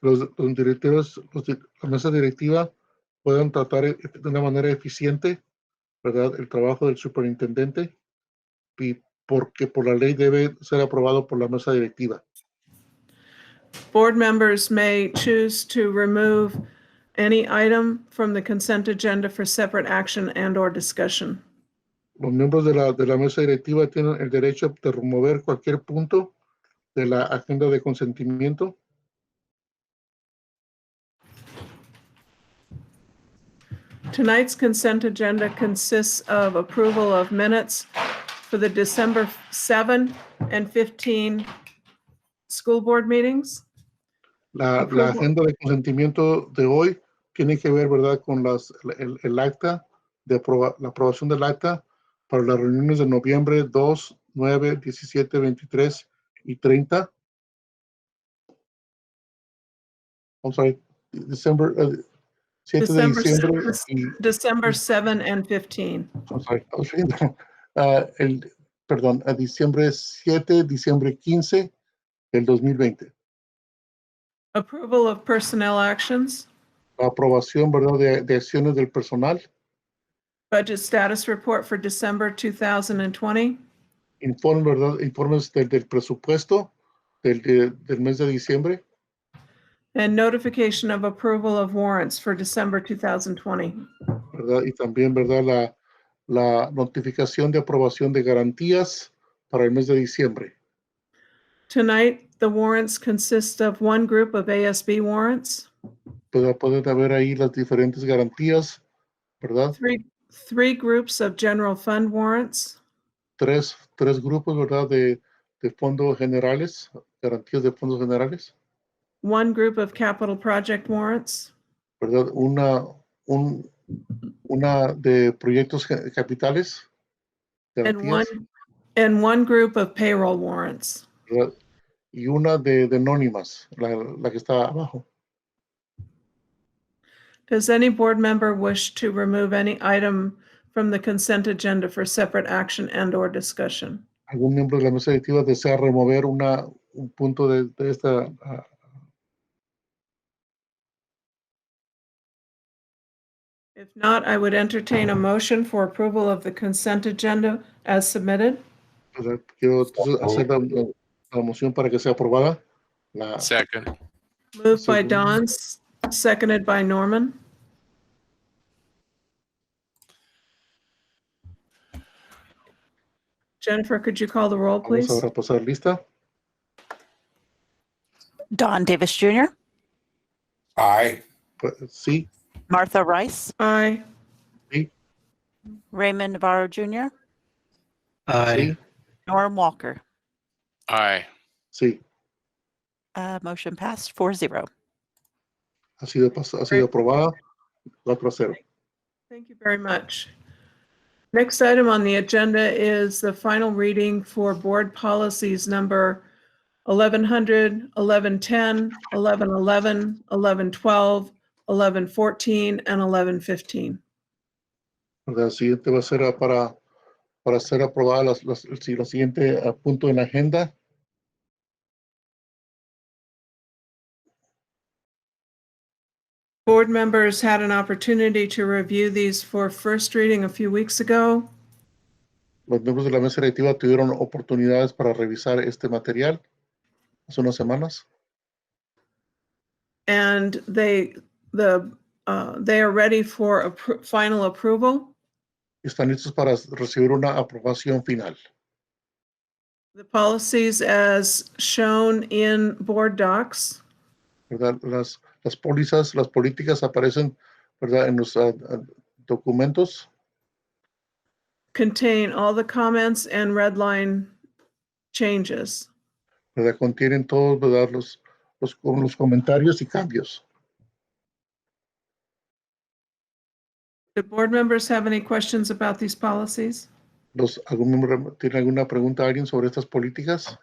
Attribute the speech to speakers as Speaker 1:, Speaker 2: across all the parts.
Speaker 1: los, los directores, los di- la mesa directiva puedan tratar e- de una manera eficiente, ¿verdad? El trabajo del superintendente y porque por la ley debe ser aprobado por la mesa directiva.
Speaker 2: Board members may choose to remove any item from the consent agenda for separate action and/or discussion.
Speaker 1: Los miembros de la, de la mesa directiva tienen el derecho de remover cualquier punto de la agenda de consentimiento.
Speaker 2: Tonight's consent agenda consists of approval of minutes for the December 7 and 15 school board meetings.
Speaker 1: La, la
Speaker 2: Apruebo.
Speaker 1: agenda de consentimiento de hoy tiene que ver, ¿verdad?, con las, el, el acta, de aproba- la aprobación del acta para las reuniones de noviembre 2, 9, 17, 23 y 30. I'm sorry, December, eh, 7 de
Speaker 2: December
Speaker 1: diciembre
Speaker 2: seventh.
Speaker 1: y
Speaker 2: December 7 and 15.
Speaker 1: I'm sorry, I was reading that. Ah, el, perdón, a diciembre 7, diciembre 15 del 2020.
Speaker 2: Approval of personnel actions,
Speaker 1: La aprobación, ¿verdad?, de, de acciones del personal,
Speaker 2: budget status report for December 2020,
Speaker 1: informe, ¿verdad?, informes del, del presupuesto del, de- del mes de diciembre
Speaker 2: and notification of approval of warrants for December 2020.
Speaker 1: ¿verdad? Y también, ¿verdad? La, la notificación de aprobación de garantías para el mes de diciembre.
Speaker 2: Tonight, the warrants consist of one group of ASB warrants,
Speaker 1: Puede, pueden haber ahí las diferentes garantías, ¿verdad?
Speaker 2: three, three groups of general fund warrants,
Speaker 1: Tres, tres grupos, ¿verdad? De, de fondos generales, garantías de fondos generales,
Speaker 2: one group of capital project warrants,
Speaker 1: ¿verdad? Una, un, una de proyectos ge- capitales,
Speaker 2: and
Speaker 1: garantías,
Speaker 2: one, and one group of payroll warrants.
Speaker 1: ¿verdad? Y una de, de anónimas, la, la que está abajo.
Speaker 2: Does any board member wish to remove any item from the consent agenda for separate action and/or discussion?
Speaker 1: algún miembro de la mesa directiva desea remover una, un punto de, de esta. ah,
Speaker 2: If not, I would entertain a motion for approval of the consent agenda as submitted.
Speaker 1: ¿verdad? Quiero entonces, hacer la, la- la moción para que sea aprobada. La,
Speaker 3: Second,
Speaker 2: Moved by
Speaker 1: Second.
Speaker 2: Don, s- seconded by Norman. Jennifer, could you call the roll,
Speaker 1: vamos
Speaker 2: please?
Speaker 1: a repasar lista.
Speaker 4: Don Davis Jr.,
Speaker 5: Aye.
Speaker 1: Pues, Sí,
Speaker 4: Martha Rice,
Speaker 2: Aye.
Speaker 4: Raymond Navarro Jr.,
Speaker 1: sí,
Speaker 4: Norm Walker.
Speaker 3: aye.
Speaker 1: sí.
Speaker 4: Uh, motion passed 4-0.
Speaker 1: Ha sido, pas- ha sido aprobada. 4 a 0.
Speaker 2: Thank you very much. Next item on the agenda is the final reading for board policies number 1100, 1110, 1111, 1112, 1114, and 1115.
Speaker 1: La siguiente va a ser ah, para, para ser aprobada las, las, el si- la siguiente ah, punto en la agenda.
Speaker 2: Board members had an opportunity to review these for first reading a few weeks ago.
Speaker 1: Los miembros de la mesa directiva tuvieron oportunidades para revisar este material hace unas semanas.
Speaker 2: And they, the, uh, they are ready for appro- final approval.
Speaker 1: Están listos para recibir una aprobación final.
Speaker 2: The policies as shown in board docs
Speaker 1: ¿verdad? Las, las pólizas, las políticas aparecen, ¿verdad? En los ah, ah, documentos,
Speaker 2: contain all the comments and red line changes.
Speaker 1: ¿verdad? Contienen todos, ¿verdad? Los, los, con los comentarios y cambios.
Speaker 2: Do board members have any questions about these policies?
Speaker 1: Los, ¿Algún miembro tiene alguna pregunta alguien sobre estas políticas?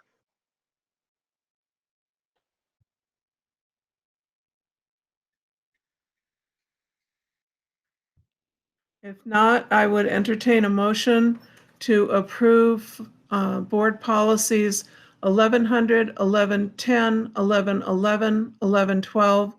Speaker 2: If not, I would entertain a motion to approve uh, board policies 1100, 1110, 1111, 1112,